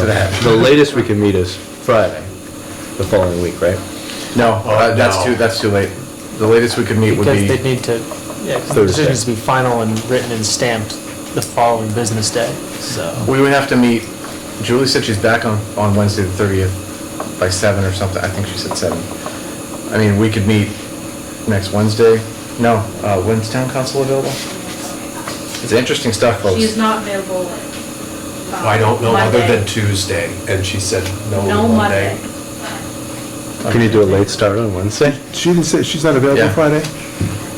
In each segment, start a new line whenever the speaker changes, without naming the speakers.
to that. The latest we can meet is Friday, the following week, right?
No,
Oh,
uh, that's too, that's too late. The latest we could meet would
Because they'd
be,
need to, yeah,
Thursday.
the decision needs to be final and written and stamped the following business day, so.
we would have to meet, Julie said she's back on, on Wednesday the 30th by seven or something, I think she said seven. I mean, we could meet next Wednesday. No, uh, when's town council available? It's interesting stuff,
She's
folks.
not available. um,
I don't know, other
Monday.
than Tuesday, and she said
No
no
Monday.
Monday.
Can you do a late start on Wednesday?
She didn't say, she's not available
Yeah.
Friday,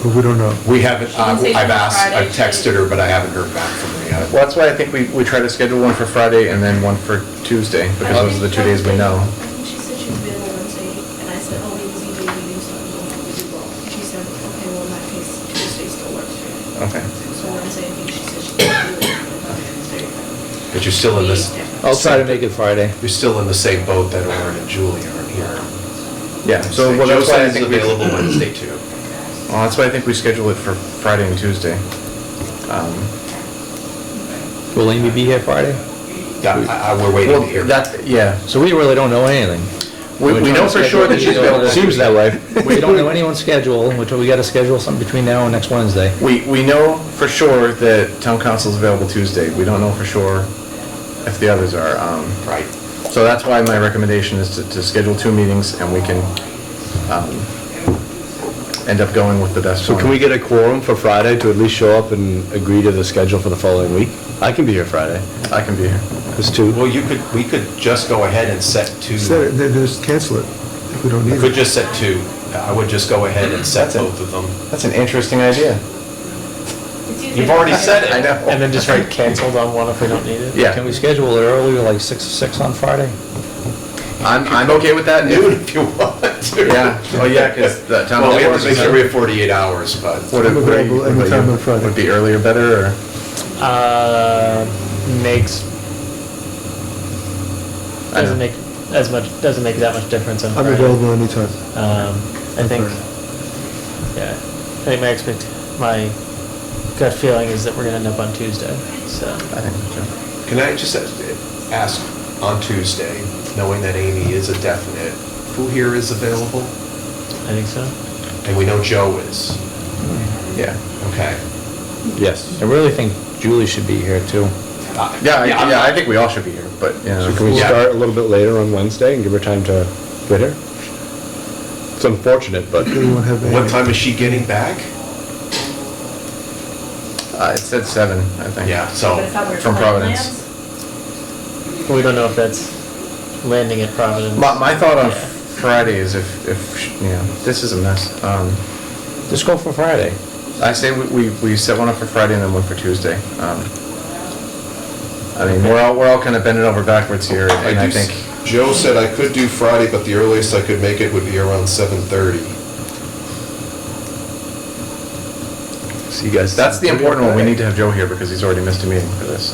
but we don't know.
We haven't,
She
uh,
didn't say
I've asked,
Friday,
I've
she-
texted her, but I haven't heard back from her yet.
Well, that's why I think we, we try to schedule one for Friday and then one for Tuesday, because those are the two days we know.
I think she said she was available Wednesday, and I said, oh, we was EJ meeting, so I'm going to do both. And she said, okay, well, in that case, Tuesday still works for you.
Okay.
So Wednesday, I think she said she could do it. but not Tuesday.
But you're still in this,
I'll try to make it Friday.
you're still in the same boat that Orin and Julie are here.
Yeah, so well, that's why I
Josiah's
think we,
available
well,
Wednesday too.
that's why I think we schedule it for Friday and Tuesday. Um,
Will Amy be here Friday?
Yeah, I- I- we're waiting
Well,
to hear.
that, yeah.
So we really don't know anything.
We,
We're
we
trying
know
to
for
schedule
sure that
these
she's available.
over- Seems that way. We don't know anyone's schedule, which we gotta schedule something between now and next Wednesday.
We, we know for sure that town council's available Tuesday. We don't know for sure if the others are. um,
Right.
So that's why my recommendation is to, to schedule two meetings and we can, um, end up going with the best
So
one.
can we get a quorum for Friday to at least show up and agree to the schedule for the following week? I can be here Friday.
I can be here.
There's two.
Well, you could, we could just go ahead and set two,
Instead, it- then just cancel it if we don't
we
need
could
it.
just set two. I would just go ahead and set both of them.
That's an interesting idea.
It's usually-
You've already said it.
I know.
And then just write canceled on one if we don't need it.
Yeah.
Can we schedule it earlier, like six, six on Friday?
I'm, I'm okay with that.
Noon if you want to.
Yeah, oh yeah, because the town.
Well, we have to
council-
make sure we have 48 hours, but.
Would it-
I'm
would it-
available anytime on Friday.
Would be earlier better or?
Uh, makes,
I know.
doesn't make as much, doesn't make that much difference on
I'm
Friday.
available anytime.
Um, I
On
think, yeah, I think my expect, my gut feeling is that we're gonna end up on Tuesday, so.
I think
Can I just ask on Tuesday, knowing that Amy is a definite, who here is available?
I think so.
And we know Joe is.
so. Mm-hmm. Yeah.
Okay.
Yes. I really think Julie should be here too.
Uh,
Yeah, I-
I'm-
yeah, I think we all should be here, but, you know.
So can we
Yeah.
start a little bit later on Wednesday and give her time to get here? It's unfortunate, but
Then we won't have
What
any.
time is she getting back?
Uh, it said seven, I think.
Yeah,
But I
so,
thought we were
From
playing
Providence.
Lance.
We don't know if that's landing at Providence.
My, my thought on
Yeah.
Friday is if, if, you know, this is a mess. Um,
Just go for Friday.
I say we, we, we set one up for Friday and then one for Tuesday. Um, I mean, we're all, we're all kind of bending over backwards here, and I think,
Joe said I could do Friday, but the earliest I could make it would be around seven thirty.
So you guys.
that's the important one. We need to have Joe here because he's already missed a meeting for this.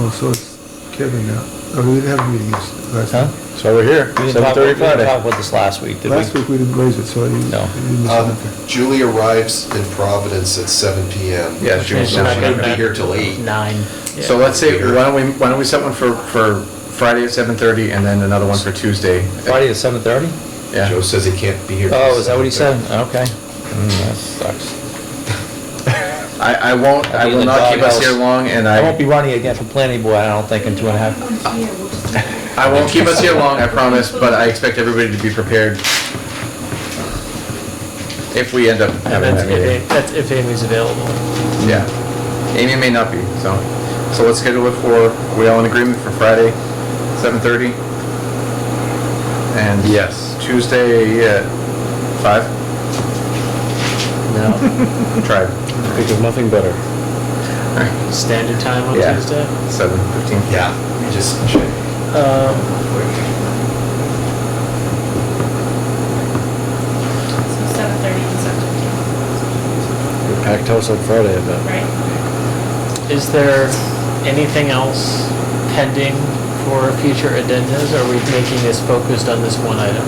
Oh, so it's Kevin now. Oh, we didn't have meetings last
Huh?
time.
So we're here,
We didn't
seven
talk- we
thirty
didn't
Friday.
talk about this last week, did we?
Last week we didn't raise it, so I didn't.
No.
I didn't miss
Um,
anything.
Julie arrives in Providence at seven PM.
Yeah,
Which
Joe's
means she's
not
not
she
here.
getting
wouldn't be
back
here till eight.
Nine.
So let's say, why don't we, why don't we set one for, for Friday at seven thirty and then another one for Tuesday?
Friday at seven thirty?
Yeah.
Joe says he can't be here. till
Oh, is that what he said?
7:30.
Okay. Mm, That sucks.
Hmm. I, I won't, I
I'll be in
will
the
not keep us
doghouse.
here long, and I.
I won't be running again for planning board, I don't think, in two and a half.
Oh, yeah, we'll just do it.
I won't keep us here long, I promise, but I expect everybody to be prepared if we end up
And
having
that's
that
if,
meeting.
Amy- that's if Amy's available.
Yeah. Amy may not be, so, so let's schedule it for, we all in agreement for Friday, seven thirty? And
Yes.
Tuesday at five?
No,
Try
Think of nothing better.
standard time on
Yeah.
Tuesday.
seven fifteen.
Yeah, let me just check.
Um,
So seven thirty and seven,
Packed house on Friday, I bet.
right?
is there anything else pending for future agendas? Are we making this focused on this one item?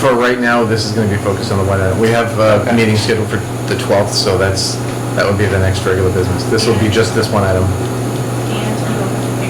For right now, this is gonna be focused on the one item. We have uh, a meeting scheduled for the twelfth, so that's, that would be the next regular business. This will be just this one item.